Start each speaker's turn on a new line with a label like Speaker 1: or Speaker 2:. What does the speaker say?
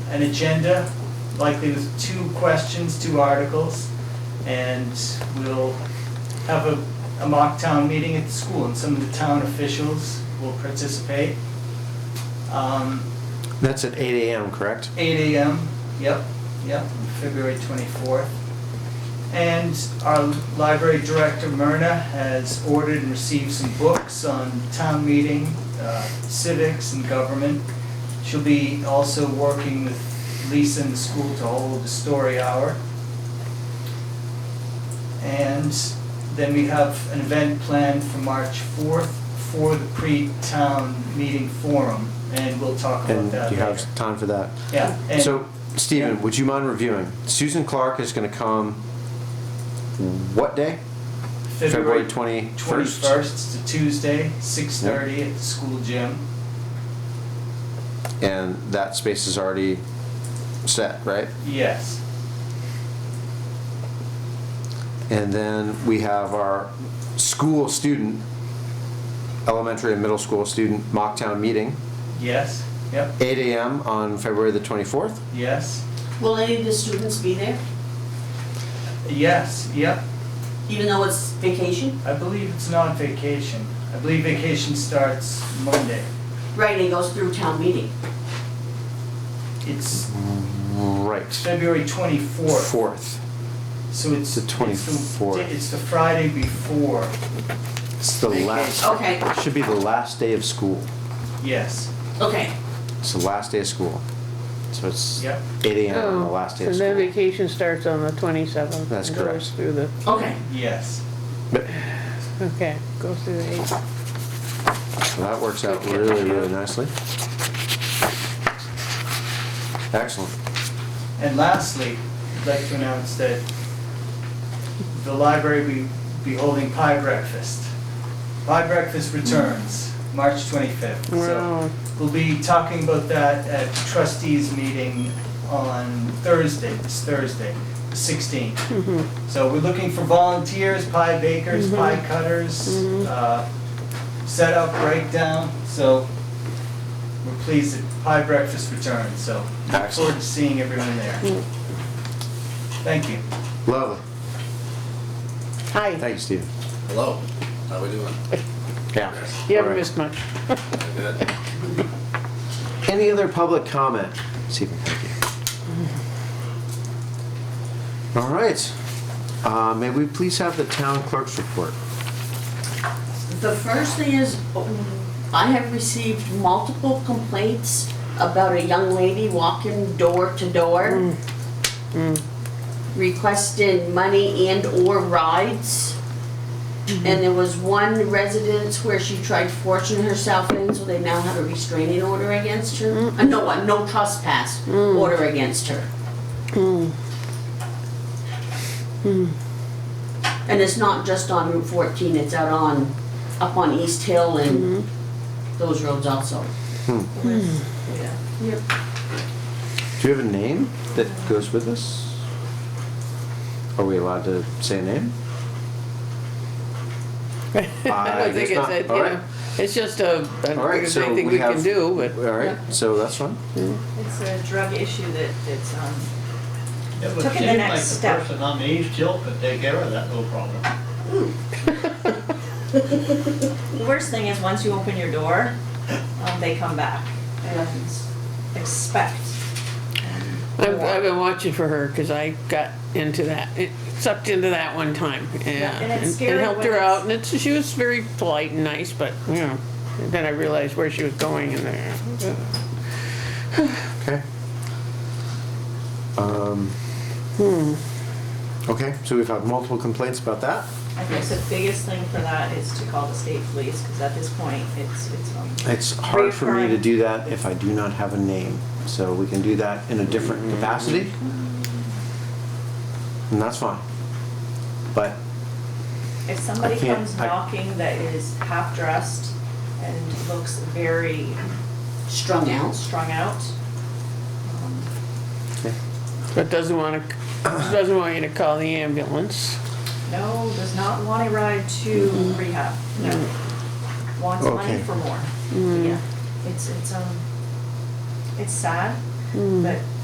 Speaker 1: an agenda, likely with two questions, two articles, and we'll have a, a mock town meeting at the school, and some of the town officials will participate. Um,
Speaker 2: That's at 8 AM, correct?
Speaker 1: 8 AM, yep, yep, on February 24th. And our library director, Myrna, has ordered and received some books on town meeting, uh, civics and government. She'll be also working with Lisa in the school to hold a story hour. And then we have an event planned for March 4th for the pre-town meeting forum, and we'll talk about
Speaker 2: And
Speaker 1: that
Speaker 2: you
Speaker 1: later.
Speaker 2: have time for that.
Speaker 1: Yeah, and
Speaker 2: So, Stephen,
Speaker 1: yeah.
Speaker 2: would you mind reviewing? Susan Clark is going to come what day?
Speaker 1: February
Speaker 2: 21st?
Speaker 1: 21st, it's a Tuesday, 6:30 at the school gym.
Speaker 2: And that space is already set, right?
Speaker 1: Yes,
Speaker 2: And then we have our school student, elementary and middle school student mocktown meeting,
Speaker 1: yes, yep,
Speaker 2: 8 AM on February the 24th.
Speaker 1: yes,
Speaker 3: Will any of the students be there,
Speaker 1: yes, yep.
Speaker 3: even though it's vacation?
Speaker 1: I believe it's not vacation. I believe vacation starts Monday.
Speaker 3: Right, and it goes through town meeting.
Speaker 1: It's
Speaker 2: Right.
Speaker 1: February 24th,
Speaker 2: 4th.
Speaker 1: so it's.
Speaker 2: The
Speaker 1: it's
Speaker 2: 24th.
Speaker 1: It's the Friday before,
Speaker 2: It's the last,
Speaker 3: Okay,
Speaker 2: should be the last day of school.
Speaker 1: yes,
Speaker 3: okay.
Speaker 2: It's the last day of school. So it's
Speaker 1: Yep.
Speaker 2: 8 AM on the
Speaker 4: Oh,
Speaker 2: last day
Speaker 4: So
Speaker 2: of
Speaker 4: then
Speaker 2: school.
Speaker 4: vacation starts on the twenty-seventh.
Speaker 2: That's
Speaker 4: And
Speaker 2: correct.
Speaker 4: goes through the,
Speaker 3: Okay.
Speaker 1: yes.
Speaker 4: okay, goes through the eighth.
Speaker 2: So that works out really, really nicely. Excellent.
Speaker 1: And lastly, I'd like to announce that the library will be holding pie breakfast. Pie breakfast returns, March 25th. So
Speaker 4: Wow.
Speaker 1: We'll be talking about that at trustees meeting on Thursday, this Thursday, the 16th.
Speaker 4: Mhm.
Speaker 5: Mm-hmm.
Speaker 1: So we're looking for volunteers, pie bakers, pie cutters,
Speaker 5: Mm-hmm.
Speaker 1: uh, setup, breakdown. So we're pleased that pie breakfast returns, so look forward to
Speaker 2: Excellent.
Speaker 1: seeing everyone there.
Speaker 5: Mm.
Speaker 1: Thank you.
Speaker 2: Lovely.
Speaker 4: Hi,
Speaker 2: Thank you, Stephen.
Speaker 6: Hello, how we doing?
Speaker 2: Yeah.
Speaker 4: you haven't
Speaker 2: Alright.
Speaker 4: missed much.
Speaker 6: Good.
Speaker 2: Any other public comment? Stephen, thank you. All right. Uh, May we please have the town clerk's report?
Speaker 3: The first thing is, um, I have received multiple complaints about a young lady walking door to door requesting money and/or rides. And there was one residence where she tried fortune herself in, so they now have a restraining order against her. Uh, No, a no trespass order against her. And it's not just on Route 14, it's out on, up on East Hill and those roads also. Yeah. Yep.
Speaker 2: Do you have a name that goes with this? Are we allowed to say a name? I
Speaker 4: don't
Speaker 2: guess
Speaker 4: think it's
Speaker 2: Uh, not.
Speaker 4: a- you
Speaker 2: All right.
Speaker 4: know, It's just a, I
Speaker 2: All
Speaker 4: don't
Speaker 2: right,
Speaker 4: think there's
Speaker 2: so
Speaker 4: anything
Speaker 2: we
Speaker 4: we can
Speaker 2: have-
Speaker 4: do,
Speaker 2: All
Speaker 4: but
Speaker 2: right, so that's fine.
Speaker 5: It's a drug issue that, that's, um,
Speaker 7: It would
Speaker 5: Took it the
Speaker 7: seem like
Speaker 5: next
Speaker 7: the
Speaker 5: step.
Speaker 7: person on the East Hill could take care of that, no problem.
Speaker 5: the worst thing is, once you open your door, um, they come back and expect.
Speaker 4: I've, I've been watching for her, cause I got into that, it sucked into that one time. Yeah.
Speaker 5: and it's scary
Speaker 4: helped
Speaker 5: when
Speaker 4: her
Speaker 5: it's-
Speaker 4: out, and it's, she was very polite and nice, but, you know, then I realized where she was going and there.
Speaker 2: Okay. Um, Okay, so we've had multiple complaints about that.
Speaker 5: I think the biggest thing for that is to call the state police, because at this point, it's, it's, um,
Speaker 2: It's hard for me to
Speaker 5: Reoccurring.
Speaker 2: do that if I do not have a name, so we can do that in a different capacity. And that's fine. But,
Speaker 5: if somebody
Speaker 2: can't-
Speaker 5: comes
Speaker 2: I-
Speaker 5: knocking that is half dressed and looks very
Speaker 3: Strung out.
Speaker 5: strung out, um,
Speaker 2: okay,
Speaker 4: But doesn't wanna, doesn't want you to call the ambulance.
Speaker 5: no, does not want a ride to rehab, no. Wants money
Speaker 2: Okay.
Speaker 5: for more. Yeah, it's, it's, um, it's sad, but